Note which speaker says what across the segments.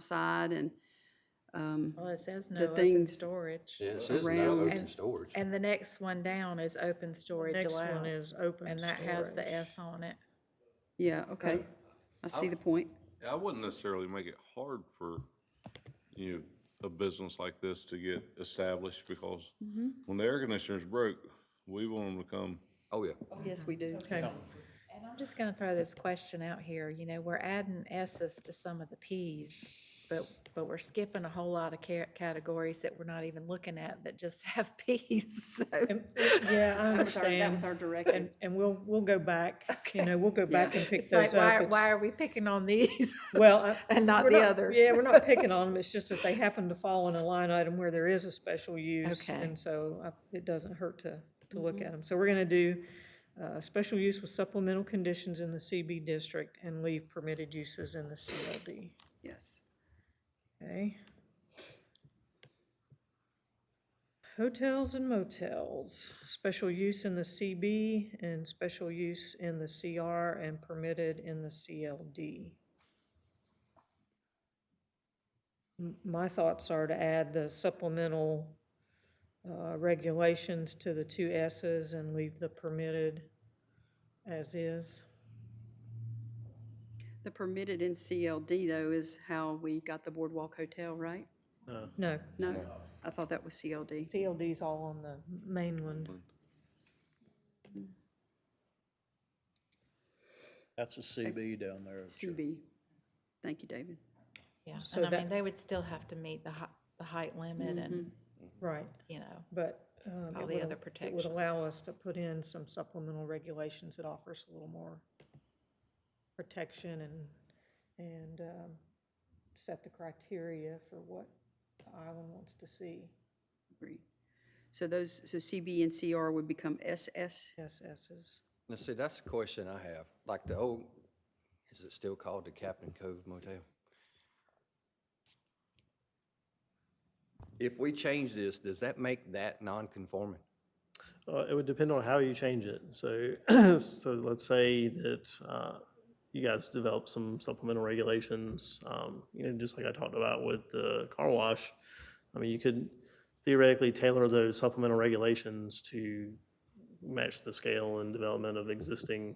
Speaker 1: outside and, um,
Speaker 2: Well, it says no
Speaker 1: The
Speaker 2: open
Speaker 1: things-
Speaker 2: storage.
Speaker 3: Yeah, it says no
Speaker 1: Around-
Speaker 3: open
Speaker 2: And-
Speaker 3: storage.
Speaker 2: And the next one down is open storage
Speaker 4: Next
Speaker 2: allowed.
Speaker 4: one is open
Speaker 2: And that has the
Speaker 4: storage.
Speaker 2: S on it.
Speaker 1: yeah, okay. I see the point.
Speaker 5: I wouldn't necessarily make it hard for, you know, a business like this to get established because when the air conditioner's broke, we want them to come.
Speaker 3: Oh, yeah.
Speaker 1: Yes, we do.
Speaker 4: Okay,
Speaker 2: And I'm just gonna throw this question out here, you know, we're adding S's to some of the Ps, but, but we're skipping a whole lot of ca- categories that we're not even looking at that just have Ps, so.
Speaker 4: And- yeah, I
Speaker 1: That was our, that was
Speaker 4: understand.
Speaker 1: our directive.
Speaker 4: And, and we'll, we'll go back, you know, we'll go back and pick
Speaker 2: It's like,
Speaker 4: those up.
Speaker 2: why,
Speaker 4: It's-
Speaker 2: why are we picking on these?
Speaker 4: Well, I-
Speaker 2: And uh, not
Speaker 4: we're
Speaker 2: the others?
Speaker 4: Yeah, we're not picking on them, it's just that they happen to fall in a line item where there is a special use.
Speaker 2: Okay. Mm-hmm.
Speaker 4: And so I- it doesn't hurt to, to look at them. So we're gonna do, uh, special use with supplemental conditions in the CB district and leave permitted uses in the CLD,
Speaker 1: Yes.
Speaker 4: okay? Hotels and motels, special use in the CB and special use in the CR and permitted in the CLD. M- My thoughts are to add the supplemental uh, regulations to the two S's and leave the permitted as is.
Speaker 1: The permitted in CLD though is how we got the Boardwalk Hotel, right?
Speaker 4: No,
Speaker 1: No, I thought that was CLD.
Speaker 4: CLD's all on the mainland.
Speaker 6: That's a CB down there.
Speaker 1: CB. Thank you, David.
Speaker 2: Yeah,
Speaker 4: So
Speaker 2: and I mean,
Speaker 4: that-
Speaker 2: they would still have to meet the hei- the height limit and,
Speaker 4: Right,
Speaker 2: you know,
Speaker 4: but. um,
Speaker 2: All
Speaker 4: it
Speaker 2: the
Speaker 4: would
Speaker 2: other
Speaker 4: al- It would allow us to put in some supplemental regulations that offers a little more protection and, and um, set the criteria for what the island wants to see.
Speaker 1: Agree. So those, so CB and CR would become SS?
Speaker 4: SS's.
Speaker 3: Now, see, that's the question I have. Like the old, is it still called the Captain Cove Motel? If we change this, does that make that non-conforming?
Speaker 7: Uh, it would depend on how you change it. So, so let's say that uh, you guys develop some supplemental regulations. Um, you know, just like I talked about with the car wash. I mean, you could theoretically tailor those supplemental regulations to match the scale and development of existing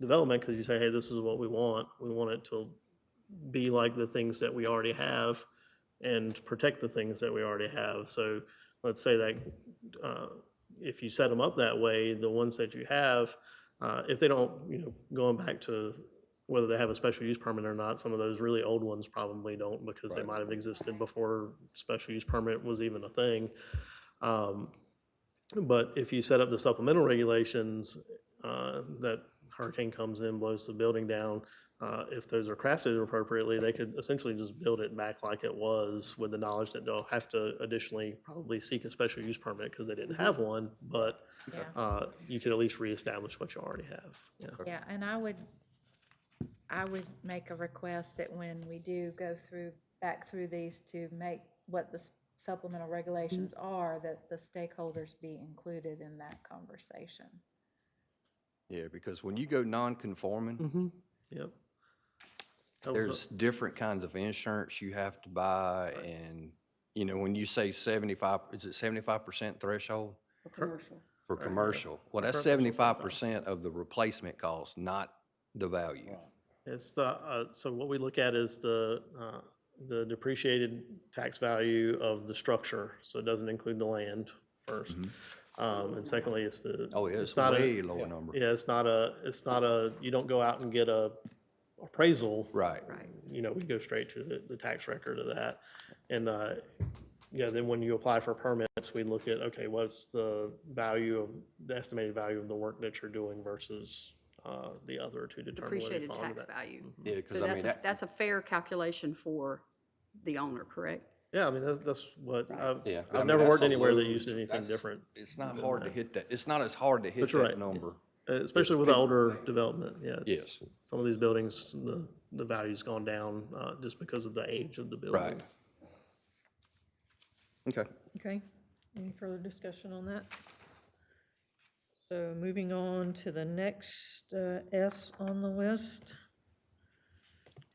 Speaker 7: development because you say, hey, this is what we want. We want it to be like the things that we already have and protect the things that we already have. So let's say that uh, if you set them up that way, the ones that you have, uh, if they don't, you know, going back to whether they have a special use permit or not, some of those really old ones probably don't because they might have existed before special use permit was even a thing. Um, But if you set up the supplemental regulations, uh, that hurricane comes in, blows the building down, uh, if those are crafted appropriately, they could essentially just build it back like it was with the knowledge that they'll have to additionally probably seek a special use permit because they didn't
Speaker 3: Mm-hmm.
Speaker 7: have one, but
Speaker 2: yeah.
Speaker 7: uh, you could at least reestablish what you already have. Yeah.
Speaker 2: Yeah, and I would, I would make a request that when we do go through, back through these to make what the s- supplemental regulations are, that the stakeholders be included in that conversation.
Speaker 3: Yeah, because when you go non-conforming,
Speaker 7: Yep. That was uh, a-
Speaker 3: there's different kinds of insurance you have to buy and, you know, when you say seventy-five, is it seventy-five percent threshold?
Speaker 1: For commercial.
Speaker 3: For commercial, well, that's
Speaker 7: Commercial's
Speaker 3: seventy-five percent of the replacement cost, not the value.
Speaker 7: It's the, uh, so what we look at is the, uh, the depreciated tax value of the structure, so it doesn't include the land first. Um, and secondly, it's the.
Speaker 3: Mm-hmm. Oh, yeah, it's
Speaker 7: not a-
Speaker 3: way lower number.
Speaker 7: Yeah, it's not a, it's not a, you don't go out and get a appraisal.
Speaker 3: Right.
Speaker 7: You know, we go straight to the, the tax record of that. And, uh, yeah, then when you apply for permits, we look at, okay, what's the value of, the estimated value of the work that you're doing versus, uh, the other to determine whether you
Speaker 1: Depreciated
Speaker 7: fall into
Speaker 1: tax
Speaker 7: that.
Speaker 1: value.
Speaker 3: Yeah,
Speaker 1: So
Speaker 3: because I mean,
Speaker 1: that's, a-
Speaker 3: that,
Speaker 1: that's a fair calculation for the owner, correct?
Speaker 7: Yeah, I mean, that's, that's what, I've,
Speaker 3: yeah. I
Speaker 7: I've
Speaker 3: mean,
Speaker 7: never
Speaker 3: that's
Speaker 7: worked
Speaker 3: a
Speaker 7: anywhere that
Speaker 3: low-
Speaker 7: used anything
Speaker 3: that's-
Speaker 7: different, Mm-hmm.
Speaker 3: It's not hard to hit that, it's not as hard to hit
Speaker 7: you're
Speaker 3: that
Speaker 7: right.
Speaker 3: number.
Speaker 7: uh, especially with the older development, yeah. it's-
Speaker 3: Yes.
Speaker 7: Some of these buildings, the, the value's gone down, uh, just because of the age of the building.
Speaker 3: Right. Okay.
Speaker 4: Okay, any further discussion on that? So moving on to the next uh, S on the list.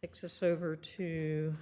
Speaker 4: Takes us over to